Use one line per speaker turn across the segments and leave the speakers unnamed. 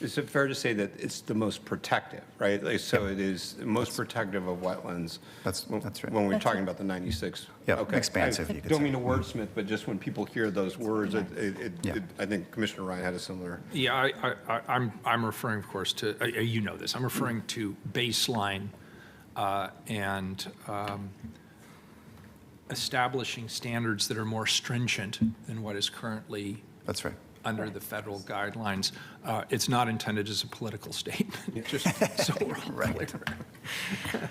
Is it fair to say that it's the most protective, right? Like, so it is most protective of wetlands?
That's-
when-
that's right.
When we're talking about the 96?
Yeah,
Okay.
expansive,
I
you could
Don't
say.
mean to wordsmith, but just when people hear those words, it, it- it-
Yeah.
it- I think Commissioner Ryan had a similar,
Yeah, I, I, I- I'm, I'm referring, of course, to, uh, uh, you know this, I'm referring to baseline uh, and um, establishing standards that are more stringent than what is currently
That's right.
under the federal guidelines. Uh, It's not intended as a political statement, just so we're all clear.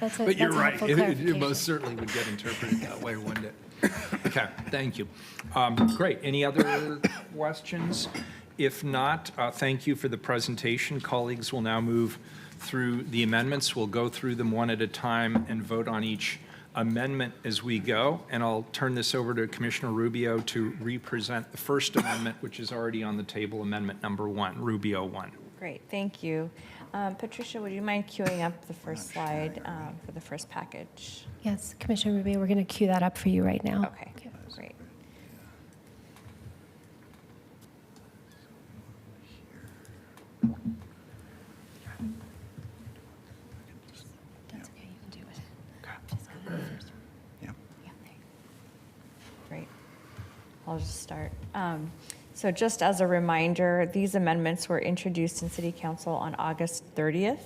That's a-
But you're
that's a
right,
helpful
it- it it
clarification.
most certainly would get interpreted that way, wouldn't it? Okay, thank you. Um, Great, any other questions? If not, uh, thank you for the presentation. Colleagues will now move through the amendments. We'll go through them one at a time and vote on each amendment as we go. And I'll turn this over to Commissioner Rubio to re-present the First Amendment, which is already on the table, Amendment Number One, Rubio One.
Great, thank you. Um, Patricia, would you mind queuing up the first slide um, for the first package?
Yes, Commissioner Rubio, we're going to queue that up for you right now.
Okay, great.
That's okay, you can do it.
Yeah.
Great. I'll just start. Um, So just as a reminder, these amendments were introduced in City Council on August 30th,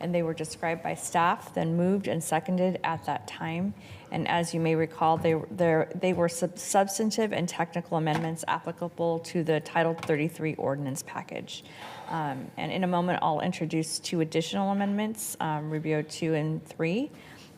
and they were described by staff, then moved and seconded at that time. And as you may recall, they, they're- they were sub- substantive and technical amendments applicable to the Title 33 ordinance package. Um, And in a moment, I'll introduce two additional amendments, um, Rubio 2 and 3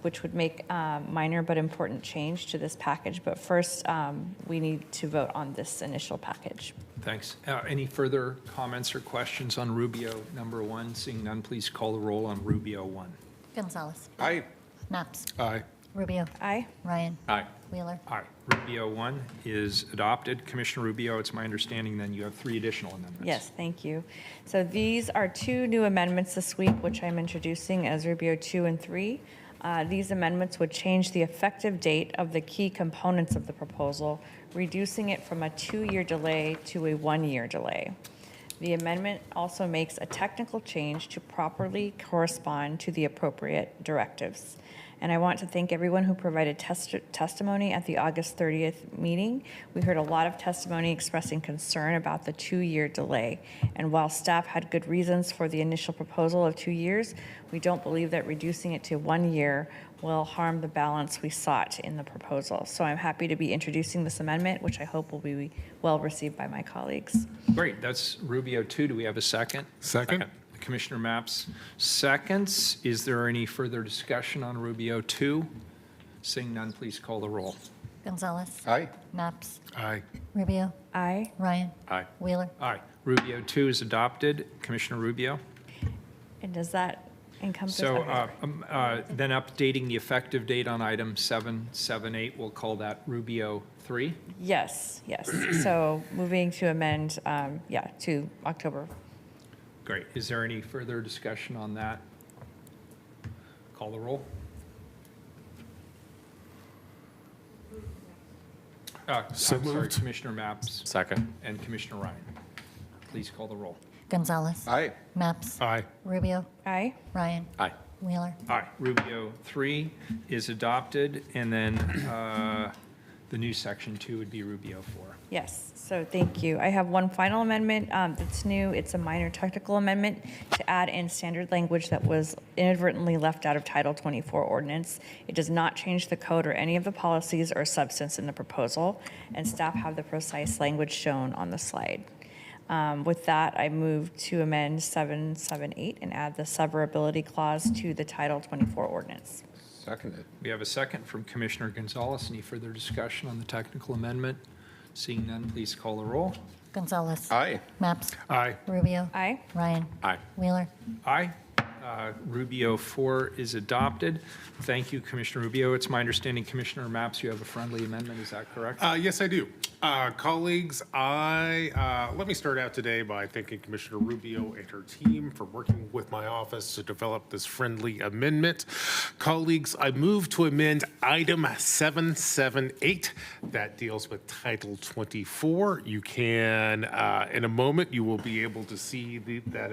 which would make uh, minor but important change to this package. But first, um, we need to vote on this initial package.
Thanks. Uh, Any further comments or questions on Rubio number one? Seeing none, please call the roll on Rubio one.
Gonzalez.
I,
Knox.
Aye.
Rubio.
Aye.
Ryan.
Aye.
Wheeler.
Aye. Rubio one is adopted. Commissioner Rubio, it's my understanding then you have three additional amendments.
Yes, thank you. So these are two new amendments this week, which I'm introducing as Rubio 2 and 3. Uh, These amendments would change the effective date of the key components of the proposal, reducing it from a two-year delay to a one-year delay. The amendment also makes a technical change to properly correspond to the appropriate directives. And I want to thank everyone who provided test- testimony at the August 30th meeting. We heard a lot of testimony expressing concern about the two-year delay. And while staff had good reasons for the initial proposal of two years, we don't believe that reducing it to one year will harm the balance we sought in the proposal. So I'm happy to be introducing this amendment, which I hope will be well-received by my colleagues.
Great, that's Rubio two. Do we have a second?
Second.
Commissioner Maps seconds. Is there any further discussion on Rubio two? Seeing none, please call the roll.
Gonzalez.
I,
Knox.
Aye.
Rubio.
Aye.
Ryan.
Aye.
Wheeler.
Aye. Rubio two is adopted. Commissioner Rubio?
And does that encompass?
So
everything?
uh, um, uh, then updating the effective date on item 778, we'll call that Rubio 3.
Yes, yes. So moving to amend, um, yeah, to October.
Great. Is there any further discussion on that? Call the roll. Uh, I'm
So
sorry,
moved.
Commissioner Maps
Second.
and Commissioner Ryan. Please call the roll.
Gonzalez.
I,
Maps.
Aye.
Rubio.
Aye.
Ryan.
Aye.
Wheeler.
Aye. Rubio 3 is adopted, and then uh, the new section 2 would be Rubio 4.
Yes, so thank you. I have one final amendment um, that's new. It's a minor technical amendment to add in standard language that was inadvertently left out of Title 24 ordinance. It does not change the code or any of the policies or substance in the proposal, and staff have the precise language shown on the slide. Um, With that, I move to amend 778 and add the severability clause to the Title 24 ordinance.
seconded.
We have a second from Commissioner Gonzalez. Any further discussion on the technical amendment? Seeing none, please call the roll.
Gonzalez.
I,
Maps.
Aye.
Rubio.
Aye?
Ryan.
Aye.
Wheeler.
Aye. Uh, Rubio 4 is adopted. Thank you, Commissioner Rubio. It's my understanding, Commissioner Maps, you have a friendly amendment, is that correct?
Uh, yes, I do. Uh, colleagues, I, uh, let me start out today by thanking Commissioner Rubio and her team for working with my office to develop this friendly amendment. Colleagues, I move to amend item 778 that deals with Title 24. You can, uh, in a moment, you will be able to see the, that